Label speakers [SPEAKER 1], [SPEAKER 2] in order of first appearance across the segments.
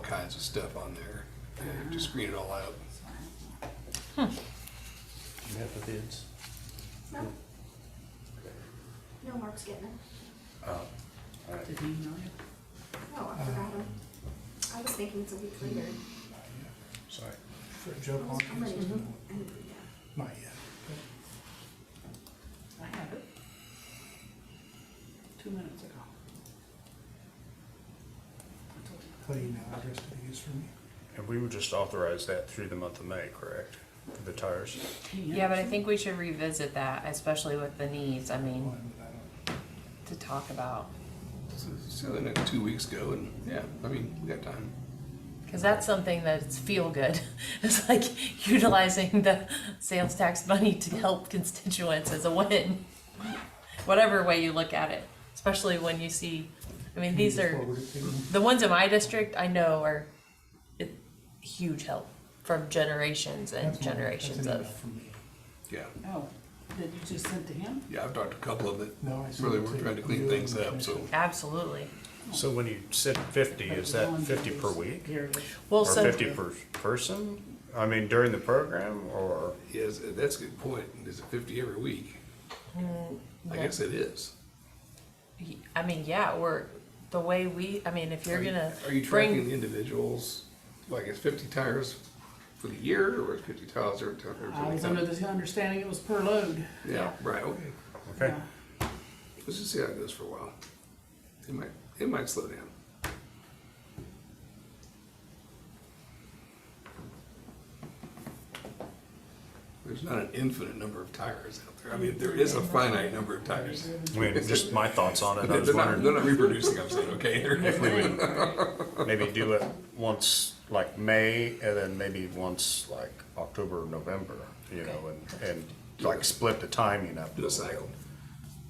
[SPEAKER 1] kinds of stuff on there, and to screen it all out.
[SPEAKER 2] You have the bids?
[SPEAKER 3] No. No, Mark's getting it.
[SPEAKER 2] Oh, all right.
[SPEAKER 4] Did he email you?
[SPEAKER 3] Oh, I forgot him. I was thinking it's a week later.
[SPEAKER 2] Sorry.
[SPEAKER 5] For Joe
[SPEAKER 3] I'm ready.
[SPEAKER 5] Hawkins?
[SPEAKER 3] And, yeah.
[SPEAKER 5] Not yet.
[SPEAKER 4] I have it. Two minutes ago. I told you.
[SPEAKER 5] What email address did he use for me?
[SPEAKER 6] And we would just authorize that through the month of May, correct? For the tires?
[SPEAKER 4] Yeah.
[SPEAKER 7] Yeah, but I think we should revisit that, especially with the needs, I mean,
[SPEAKER 5] One, I don't-
[SPEAKER 7] to talk about.
[SPEAKER 1] So, so the next two weeks go, and yeah, I mean, we got time.
[SPEAKER 7] Cause that's something that's feel good. It's like utilizing the sales tax money to help constituents is a win. Whatever way you look at it, especially when you see, I mean,
[SPEAKER 5] Can
[SPEAKER 7] these
[SPEAKER 5] you
[SPEAKER 7] are.
[SPEAKER 5] forward it to me?
[SPEAKER 7] the ones in my district I know are a huge help from generations and
[SPEAKER 5] That's one- that's an
[SPEAKER 7] generations
[SPEAKER 5] email
[SPEAKER 7] of.
[SPEAKER 5] from me.
[SPEAKER 1] Yeah,
[SPEAKER 4] Oh, that you just sent to him?
[SPEAKER 1] yeah, I've talked to a couple of it.
[SPEAKER 5] No, I see
[SPEAKER 1] Really,
[SPEAKER 5] what
[SPEAKER 1] we're
[SPEAKER 5] you-
[SPEAKER 1] trying to clean
[SPEAKER 5] you
[SPEAKER 1] things
[SPEAKER 5] and-
[SPEAKER 1] up, so
[SPEAKER 7] Absolutely.
[SPEAKER 6] So when you said fifty, is that fifty per week?
[SPEAKER 4] Here it is.
[SPEAKER 7] Well,
[SPEAKER 6] Or
[SPEAKER 7] so
[SPEAKER 6] fifty per person? I mean, during the program or?
[SPEAKER 1] yes, that's a good point. Is it fifty every week? I guess it is.
[SPEAKER 7] I mean, yeah, we're the way we. I mean, if you're
[SPEAKER 1] Are you-
[SPEAKER 7] gonna
[SPEAKER 1] Are you tracking
[SPEAKER 7] bring
[SPEAKER 1] the individuals? Like, it's fifty tires for the year, or is fifty tires every time? every
[SPEAKER 4] I was
[SPEAKER 1] time?
[SPEAKER 4] under the understanding it was per load.
[SPEAKER 1] Yeah, right, okay.
[SPEAKER 6] Okay.
[SPEAKER 4] Yeah.
[SPEAKER 1] Let's just see how it goes for a while. It might, it might slow down. There's not an infinite number of tires out there. I mean, there is a finite number of tires.
[SPEAKER 6] I mean, just my thoughts on it. I
[SPEAKER 1] They're
[SPEAKER 6] was
[SPEAKER 1] not, they're
[SPEAKER 6] wondering
[SPEAKER 1] not reproducing, I'm saying, okay?
[SPEAKER 6] if we would maybe do it once like May and then maybe once like October, November, you know, and, and like split the timing up. a
[SPEAKER 1] Do a
[SPEAKER 6] little bit.
[SPEAKER 1] cycle.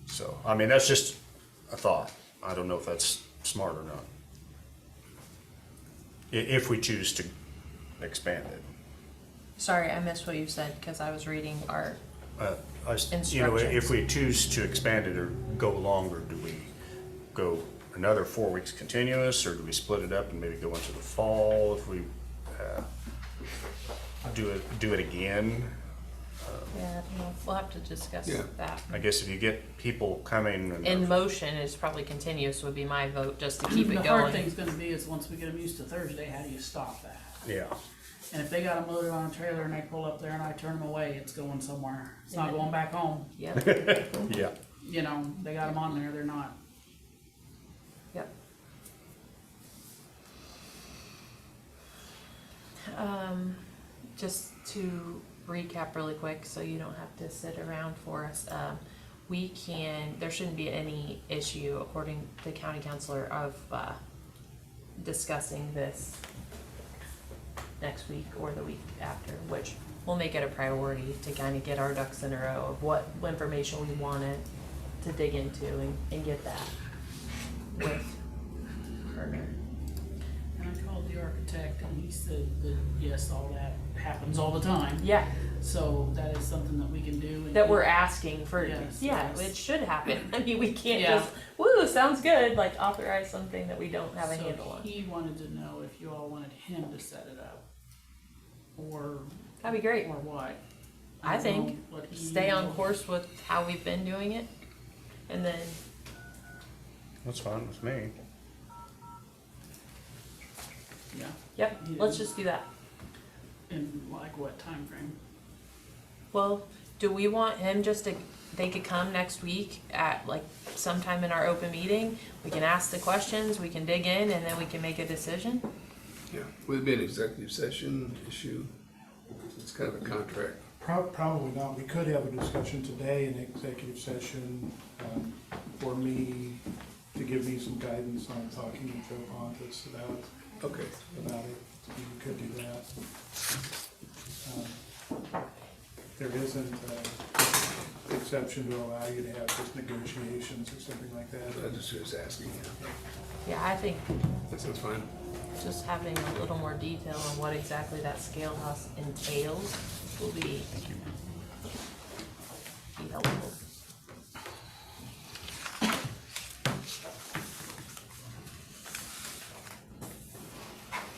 [SPEAKER 6] So, I mean, that's just a thought. I don't know if that's smart or not. I- if we choose to expand it.
[SPEAKER 7] sorry, I missed what you said because I was reading our.
[SPEAKER 6] Uh, I s- You know, if
[SPEAKER 7] Instructions.
[SPEAKER 6] we choose to expand it or go longer, do we go another four weeks continuous? Or do we split it up and maybe go into the fall if we uh, do it, do it again?
[SPEAKER 7] Yeah, I don't know. We'll have to discuss
[SPEAKER 1] Yeah.
[SPEAKER 7] that.
[SPEAKER 6] I guess if you get people coming
[SPEAKER 7] In
[SPEAKER 6] and they're-
[SPEAKER 7] motion is probably continuous would be my vote just to keep it
[SPEAKER 4] The hard
[SPEAKER 7] going.
[SPEAKER 4] thing's gonna be is once we get them used to Thursday, how do you stop that?
[SPEAKER 6] yeah,
[SPEAKER 4] And if they got them loaded on a trailer and they pull up there and I turn them away, it's going somewhere. It's not going back home.
[SPEAKER 7] Yep,
[SPEAKER 6] yeah.
[SPEAKER 4] You know, they got them on there, they're not.
[SPEAKER 7] yep. Um, just to recap really quick, so you don't have to sit around for us, um, we can, there shouldn't be any issue according to the county counselor of, uh, discussing this next week or the week after, which we'll make it a priority to kind of get our ducks in a row of what information we wanted to dig into and, and get that with Turner.
[SPEAKER 4] And I called the architect and he said that, yes, all that happens all the time.
[SPEAKER 7] Yeah,
[SPEAKER 4] So that is something that we can do. and-
[SPEAKER 7] that we're asking for,
[SPEAKER 4] Yes,
[SPEAKER 7] yeah,
[SPEAKER 4] yes.
[SPEAKER 7] it should happen. I mean, we can't
[SPEAKER 4] Yeah.
[SPEAKER 7] just, woo, sounds good, like authorize something that we don't have a
[SPEAKER 4] So
[SPEAKER 7] handle on.
[SPEAKER 4] He wanted to know if you all wanted him to set it up or,
[SPEAKER 7] That'd be great.
[SPEAKER 4] or what.
[SPEAKER 7] I
[SPEAKER 4] don't know
[SPEAKER 7] think
[SPEAKER 4] what he-
[SPEAKER 7] Stay on course with how we've been doing it and then
[SPEAKER 6] That's fine with me.
[SPEAKER 4] Yeah,
[SPEAKER 7] Yep,
[SPEAKER 4] Yeah.
[SPEAKER 7] let's just do that.
[SPEAKER 4] in like what time frame?
[SPEAKER 7] Well, do we want him just to, they could come next week at like sometime in our open meeting? We can ask the questions, we can dig in, and then we can make a decision?
[SPEAKER 1] Yeah, would it be an executive session issue? It's kind of a contract.
[SPEAKER 5] Prob- Probably not. We could have a discussion today in executive session um, for me, to give me some guidance on talking to Joe Pontus about,
[SPEAKER 1] Okay.
[SPEAKER 5] about it. We could do that. Um, There isn't an exception to allow you to have just negotiations or something like
[SPEAKER 1] I
[SPEAKER 5] that.
[SPEAKER 1] just was asking, yeah.
[SPEAKER 7] Yeah, I think
[SPEAKER 1] That sounds fine.
[SPEAKER 7] just having a little more detail on what exactly that scale house entails will be be helpful.